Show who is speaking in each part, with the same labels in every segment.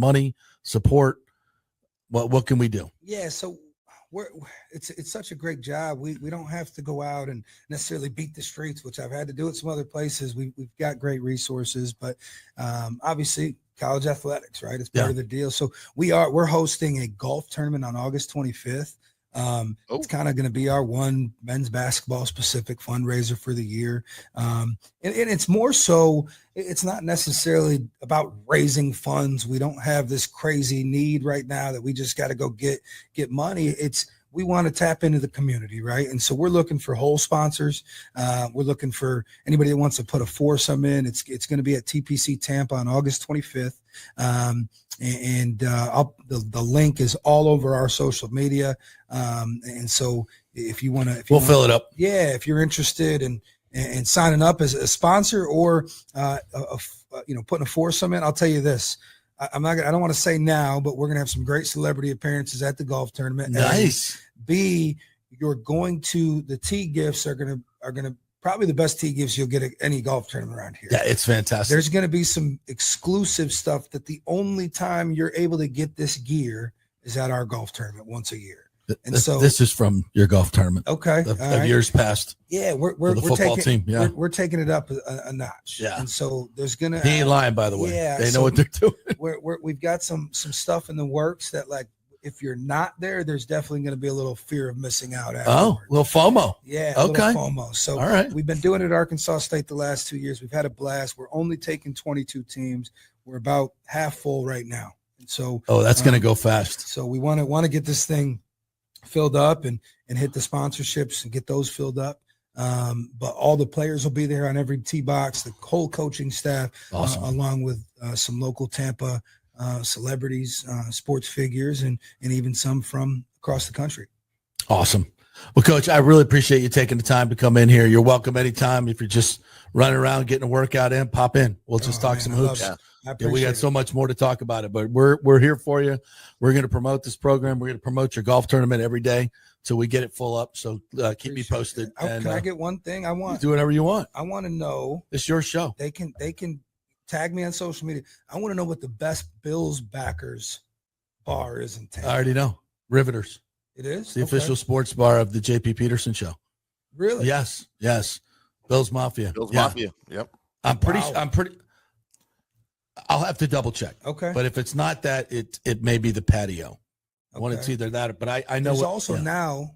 Speaker 1: money, support. What what can we do?
Speaker 2: Yeah, so we're it's it's such a great job. We we don't have to go out and necessarily beat the streets, which I've had to do at some other places. We we've got great resources, but um, obviously college athletics, right? It's part
Speaker 1: Yeah.
Speaker 2: of the deal. So we are we're hosting a golf tournament on August 25th. Um,
Speaker 3: Oh.
Speaker 2: It's kind of going to be our one men's basketball specific fundraiser for the year, um, and, and it's more so. it- It's not necessarily about raising funds. We don't have this crazy need right now that we just got to go get get money. It's we want to tap into the community, right? And so we're looking for whole sponsors. Uh, we're looking for anybody that wants to put a foursome in. It's it's going to be at TPC Tampa on August 25th, um, and, and, uh, I'll, the the link is all over our social media. Um, and so if you want to,
Speaker 1: We'll fill it up.
Speaker 2: yeah, if you're interested in and signing up as a sponsor or uh, a, a f- uh, you know putting a foursome in, I'll tell you this. I, I'm not. Gonna, I don't want to say now, but we're gonna have some great celebrity appearances at the golf tournament. And
Speaker 1: Nice.
Speaker 2: B, you're going to the tea gifts are gonna are gonna probably the best tea gifts you'll get at any golf tournament around here.
Speaker 1: Yeah, it's fantastic.
Speaker 2: There's going to be some exclusive stuff that the only time you're able to get this gear is at our golf tournament once a year.
Speaker 1: Th-
Speaker 2: and
Speaker 1: this,
Speaker 2: so-
Speaker 1: this is from your golf tournament
Speaker 2: Okay,
Speaker 1: of, of
Speaker 2: all right.
Speaker 1: years past
Speaker 2: yeah, we're we're,
Speaker 1: for the
Speaker 2: we're
Speaker 1: football team.
Speaker 2: taking
Speaker 1: Yeah,
Speaker 2: we're, we're taking it up a, a notch.
Speaker 1: Yeah.
Speaker 2: and so there's gonna
Speaker 1: he ain't lying. By the way,
Speaker 2: Yeah,
Speaker 1: they know
Speaker 2: so-
Speaker 1: what they're doing.
Speaker 2: we're, we're, we've got some some stuff in the works that like if you're not there, there's definitely going to be a little fear of missing out.
Speaker 1: Oh,
Speaker 2: Afterwards.
Speaker 1: little FOMO.
Speaker 2: yeah, a little
Speaker 1: okay.
Speaker 2: FOMO. So
Speaker 1: All right.
Speaker 2: We've been doing it at Arkansas State the last two years. We've had a blast. We're only taking 22 teams. We're about half full right now. And so,
Speaker 1: Oh, that's gonna
Speaker 2: Um,
Speaker 1: go fast.
Speaker 2: so we want to want to get this thing filled up and and hit the sponsorships and get those filled up. Um, but all the players will be there on every tee box. The whole coaching staff, uh,
Speaker 1: Awesome.
Speaker 2: along with uh, some local Tampa uh, celebrities, uh, sports figures, and and even some from across the country.
Speaker 1: Awesome. Well, coach, I really appreciate you taking the time to come in here. You're welcome anytime. If you're just running around getting a workout in, pop in. We'll just
Speaker 2: Oh,
Speaker 1: talk
Speaker 2: man,
Speaker 1: some
Speaker 2: I love
Speaker 1: hoops.
Speaker 2: it.
Speaker 3: Yeah.
Speaker 2: I
Speaker 1: Yeah,
Speaker 2: appreciate
Speaker 1: we got
Speaker 2: it.
Speaker 1: so much more to talk about it, but we're we're here for you. We're going to promote this program. We're going to promote your golf tournament every day till we get it full up. So uh, keep me
Speaker 2: Appreciate it.
Speaker 1: posted
Speaker 2: I-
Speaker 1: and
Speaker 2: can
Speaker 1: uh,
Speaker 2: I get one thing? I want
Speaker 1: do whatever you want.
Speaker 2: I want to know
Speaker 1: It's your show.
Speaker 2: they can they can tag me on social media. I want to know what the best Bills backers bar is in
Speaker 1: I
Speaker 2: Tampa.
Speaker 1: already know. Riveters,
Speaker 2: It is
Speaker 1: it's the
Speaker 2: Okay.
Speaker 1: official sports bar of the JP Peterson show.
Speaker 2: Really?
Speaker 1: Yes, yes. Bill's Mafia.
Speaker 3: Bills
Speaker 1: Yeah.
Speaker 3: Mafia. Yep.
Speaker 1: I'm pretty.
Speaker 2: Wow.
Speaker 1: I'm pretty. I'll have to double check.
Speaker 2: Okay.
Speaker 1: But if it's not that, it it may be the patio. One, it's
Speaker 2: okay.
Speaker 1: either that. or- But I I know.
Speaker 2: There's
Speaker 1: what-
Speaker 2: also
Speaker 1: yeah.
Speaker 2: now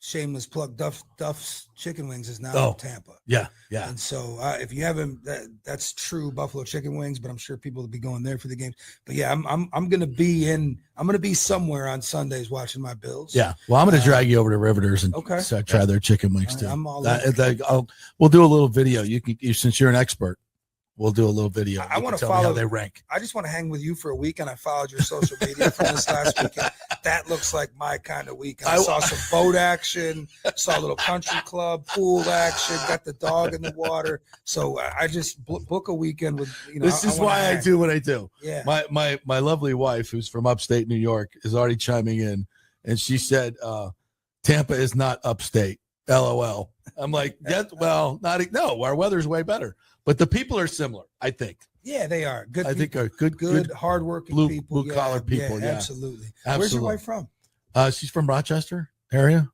Speaker 2: shameless plug. Duff Duff's Chicken Wings is now
Speaker 1: Oh.
Speaker 2: in Tampa.
Speaker 1: Yeah, yeah.
Speaker 2: And so, uh, if you haven't, that, that's true Buffalo Chicken Wings, but I'm sure people will be going there for the games. But yeah, I'm I'm I'm gonna be in. I'm gonna be somewhere on Sundays watching my Bills.
Speaker 1: Yeah. Well, I'm going
Speaker 2: Uh,
Speaker 1: to drag you over to Riveters and
Speaker 2: okay.
Speaker 1: so try their chicken wings
Speaker 2: I-
Speaker 1: too.
Speaker 2: I'm all
Speaker 1: That-
Speaker 2: in.
Speaker 1: that- I'll- we'll do a little video. You can, you, since you're an expert, we'll do a little video.
Speaker 2: I- I
Speaker 1: You can
Speaker 2: wanna
Speaker 1: tell me how
Speaker 2: follow-
Speaker 1: they rank.
Speaker 2: I just want to hang with you for a week, and I followed your social media from this last weekend. That looks like my kind of weekend. I
Speaker 1: I-
Speaker 2: saw some boat action, saw a little country club pool action, got the dog in the water. So uh, I I just bl- book a weekend with you know.
Speaker 1: this is
Speaker 2: wanna
Speaker 1: why I
Speaker 2: hang.
Speaker 1: do what I do.
Speaker 2: Yeah.
Speaker 1: My my my lovely wife, who's from upstate New York, is already chiming in, and she said, uh, "Tampa is not upstate." LOL. I'm like, that, well, not e-, no. Our weather's way better, but the people are similar. I think.
Speaker 2: yeah, they are good.
Speaker 1: I
Speaker 2: people,
Speaker 1: think are good.
Speaker 2: good,
Speaker 1: Good.
Speaker 2: hardworking
Speaker 1: blue-
Speaker 2: people, yeah,
Speaker 1: blue-collar people, yeah.
Speaker 2: absolutely. Where's your
Speaker 1: Absolutely.
Speaker 2: wife from?
Speaker 1: Uh, she's from Rochester area,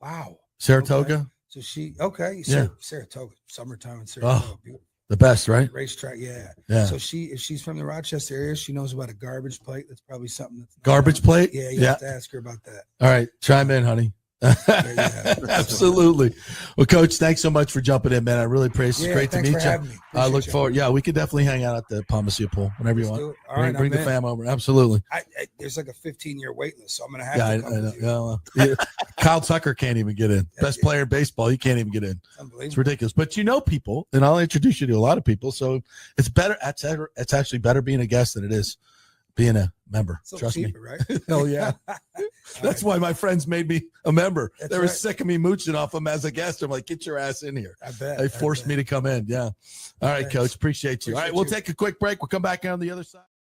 Speaker 2: Wow.
Speaker 1: Saratoga.
Speaker 2: So she okay?
Speaker 1: Yeah.
Speaker 2: Sar- Saratoga, summertime in Saratoga, beautiful
Speaker 1: The best, right?
Speaker 2: racetrack. Yeah.
Speaker 1: Yeah.
Speaker 2: So she, if she's from the Rochester area, she knows about a garbage plate. That's probably something that's not
Speaker 1: Garbage
Speaker 2: known.
Speaker 1: plate.
Speaker 2: Yeah, you
Speaker 1: Yeah.
Speaker 2: have to ask her about that.
Speaker 1: All right. Chime in, honey.
Speaker 2: yeah.
Speaker 1: Absolutely. Well, Coach, thanks so much for jumping in, man. I really appreciate it.
Speaker 2: yeah,
Speaker 1: It's great to
Speaker 2: thanks
Speaker 1: meet
Speaker 2: for
Speaker 1: you.
Speaker 2: having me.
Speaker 1: I
Speaker 2: Appreciate
Speaker 1: look
Speaker 2: you.
Speaker 1: forward. Yeah, we could definitely hang out at the Palmacia pool whenever you
Speaker 2: Let's
Speaker 1: want.
Speaker 2: do it. All
Speaker 1: bring
Speaker 2: right,
Speaker 1: bring the
Speaker 2: I'm in.
Speaker 1: fam over. Absolutely.
Speaker 2: I, I, there's like a 15 year wait list, so I'm gonna have
Speaker 1: Yeah, I,
Speaker 2: to come
Speaker 1: I know.
Speaker 2: with you.
Speaker 1: Yeah, well, yeah. Kyle Tucker can't even get in.
Speaker 2: Yeah,
Speaker 1: Best
Speaker 2: yeah.
Speaker 1: player in baseball, he can't even get in.
Speaker 2: It's
Speaker 1: It's
Speaker 2: unbelievable.
Speaker 1: ridiculous. But you know people, and I'll introduce you to a lot of people. So it's better. It's, it's actually better being a guest than it is being a member.
Speaker 2: It's a little
Speaker 1: Trust me.
Speaker 2: cheaper, right?
Speaker 1: Hell yeah. That's why my friends made me a member.
Speaker 2: That's
Speaker 1: they were
Speaker 2: right.
Speaker 1: sick of me mooching off them as a guest. I'm like, get your ass in here.
Speaker 2: I bet
Speaker 1: They forced me to come in. Yeah. All right,
Speaker 2: Thanks.
Speaker 1: coach. Appreciate you. All right,
Speaker 2: Appreciate
Speaker 1: we'll
Speaker 2: you.
Speaker 1: take a quick break. We'll come back on the other side.